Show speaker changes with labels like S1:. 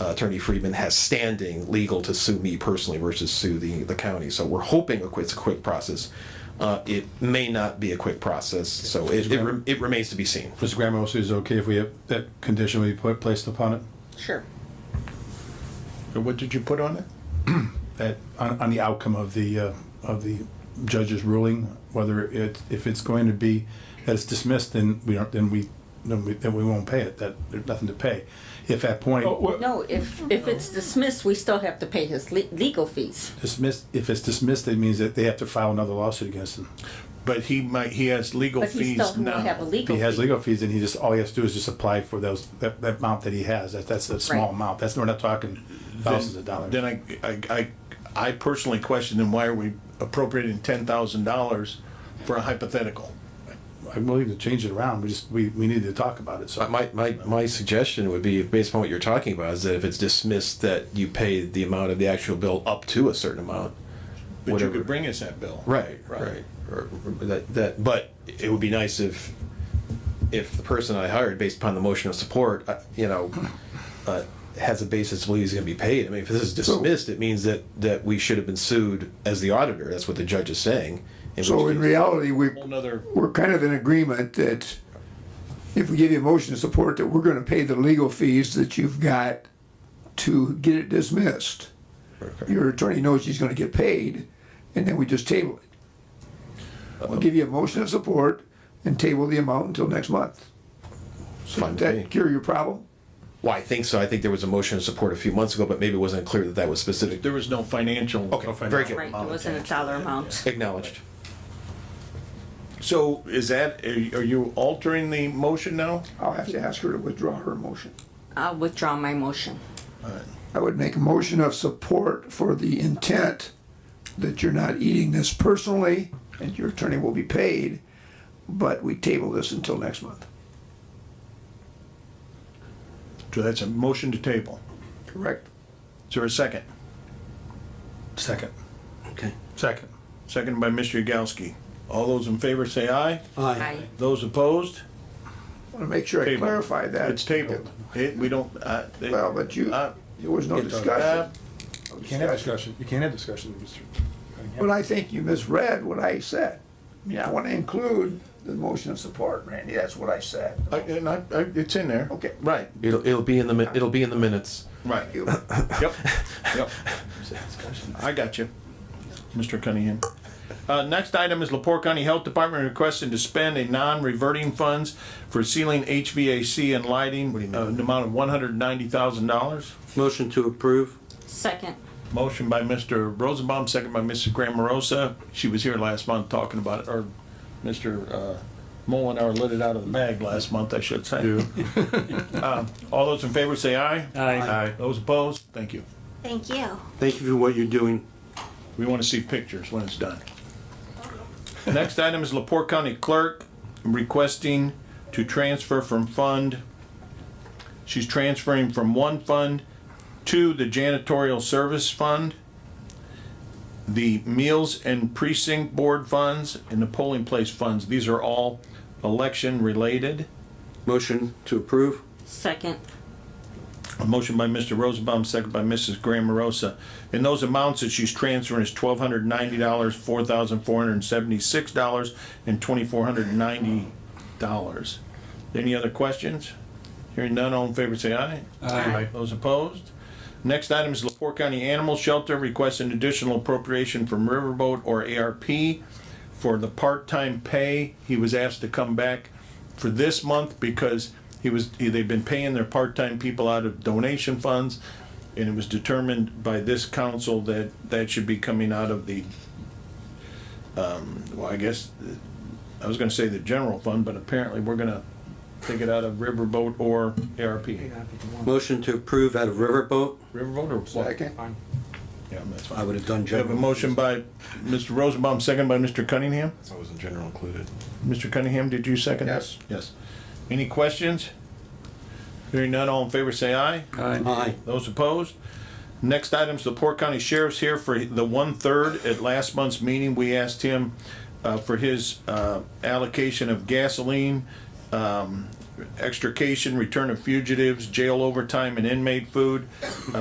S1: Attorney Friedman has standing legal to sue me personally versus sue the, the county. So we're hoping a quick, it's a quick process. Uh, It may not be a quick process, so it, it re- it remains to be seen.
S2: Mr. Grandmoser, is it okay if we have that condition we put placed upon it?
S3: Sure.
S2: Or What did you put on it? That, on, on the outcome of the, uh, of the judge's ruling, whether it, if it's going to be, that it's dismissed, then we don't, then we, then we, then we won't pay it, that, there's nothing to pay. If at point
S3: No, if, if it's dismissed, we still have to pay his le- legal fees.
S2: dismissed, if it's dismissed, it means that they have to file another lawsuit against him.
S4: But he might, he has legal
S3: But he still
S4: fees
S3: will have a
S4: now.
S2: If
S3: legal
S2: he has
S3: fee.
S2: legal fees, then he just, all he has to do is just apply for those, that, that amount that he has, that, that's a small
S3: Right.
S2: amount, that's, we're not talking thousands of dollars.
S4: Then I, I, I, I personally question then why are we appropriating ten thousand dollars for a hypothetical?
S2: I'm willing to change it around, we just, we, we need to talk about it, so.
S1: My, my, my suggestion would be, based upon what you're talking about, is that if it's dismissed, that you pay the amount of the actual bill up to a certain amount.
S4: But you
S1: Whatever.
S4: could bring us that bill.
S1: Right, right. Or- or That, that, but it would be nice if, if the person I hired, based upon the motion of support, uh, you know, uh, has a basis to believe he's gonna be paid. I mean, if this is dismissed, it means that, that we should have been sued as the auditor. That's what the judge is saying. which
S5: So in
S1: case-
S5: reality, we,
S4: Whole nother-
S5: we're kind of in agreement that if we give you a motion to support, that we're gonna pay the legal fees that you've got to get it dismissed. Your attorney knows he's gonna get paid, and then we just table it. We'll give you a motion of support and table the amount until next month. So
S1: Fine
S5: does
S1: with me.
S5: that cure your problem?
S1: Well, I think so. I think there was a motion of support a few months ago, but maybe it wasn't clear that that was specific.
S4: There was no financial.
S1: Okay, very good.
S3: Right, it wasn't a dollar amount.
S1: Acknowledged.
S4: So is that, are you- are you altering the motion now?
S5: I'll have to ask her to withdraw her motion.
S3: I'll withdraw my motion.
S5: I would make a motion of support for the intent that you're not eating this personally and your attorney will be paid, but we table this until next month.
S4: So that's a motion to table.
S5: Correct.
S4: Is there a second?
S2: Second.
S1: Okay.
S2: Second.
S4: Second by Mr. Yagowski. All those in favor say aye.
S3: Aye.
S4: Those opposed?
S5: I want to make sure I
S4: Table.
S5: clarify that.
S4: It's tabled. It, we don't, uh. it-
S5: Well, but you,
S4: uh,
S5: there was no
S4: uh,
S5: discussion.
S2: You can't have discussion, you can't have discussion, Mr.
S5: But I think you misread what I said. I mean, I want to include the motion of support, Randy, that's what I said.
S4: I- And I, I, it's in there.
S5: Okay.
S4: Right,
S1: It'll, it'll be in the, min- it'll be in the minutes.
S4: right.
S5: You-
S4: Yep, yep. I got you, Mr. Cunningham. Uh, next item is Lepore County Health Department requesting to spend a non-reverting funds for ceiling HVAC and lighting, uh, an amount of one hundred ninety thousand dollars.
S6: Motion to approve.
S3: Second.
S4: Motion by Mr. Rosenbaum, second by Mrs. Grammerosa. She was here last month talking about it, or Mr. uh, Mullenhour lit it out of the bag last month, I should say. Um, All those in favor say aye.
S2: Aye.
S4: Those opposed? Thank you.
S3: Thank you.
S6: Thank you for what you're doing.
S4: We want to see pictures when it's done. Next item is Lepore County Clerk requesting to transfer from fund. She's transferring from one fund to the janitorial service fund, the meals and precinct board funds, and the polling place funds. These are all election related.
S6: Motion to approve.
S3: Second.
S4: A motion by Mr. Rosenbaum, second by Mrs. Grammerosa. And those amounts that she's transferring is twelve hundred ninety dollars, four thousand four hundred and seventy-six dollars, and twenty-four hundred and ninety dollars. Any other questions? Hearing none, all in favor say aye. Aye. Those opposed? Next item is Lepore County Animal Shelter requests an additional appropriation from Riverboat or ARP for the part-time pay. He was asked to come back for this month because he was, they've been paying their part-time people out of donation funds. And it was determined by this council that that should be coming out of the, um, well, I guess, I was gonna say the general fund, but apparently we're gonna take it out of Riverboat or ARP.
S6: Motion to approve out of Riverboat.
S4: Riverboat or what?
S5: Second.
S4: Yeah, that's
S6: I
S4: fine.
S6: would have done
S4: We have a
S6: general.
S4: motion by Mr. Rosenbaum, second by Mr. Cunningham.
S1: So it was in general included.
S4: Mr. Cunningham, did you second?
S5: Yes.
S4: Yes. Any questions? Hearing none, all in favor say aye.
S6: Aye.
S4: Those opposed? Next item's the Port County Sheriff's here for the one-third. At last month's meeting, we asked him uh, for his uh, allocation of gasoline um, extrication, return of fugitives, jail overtime and inmate food, uh,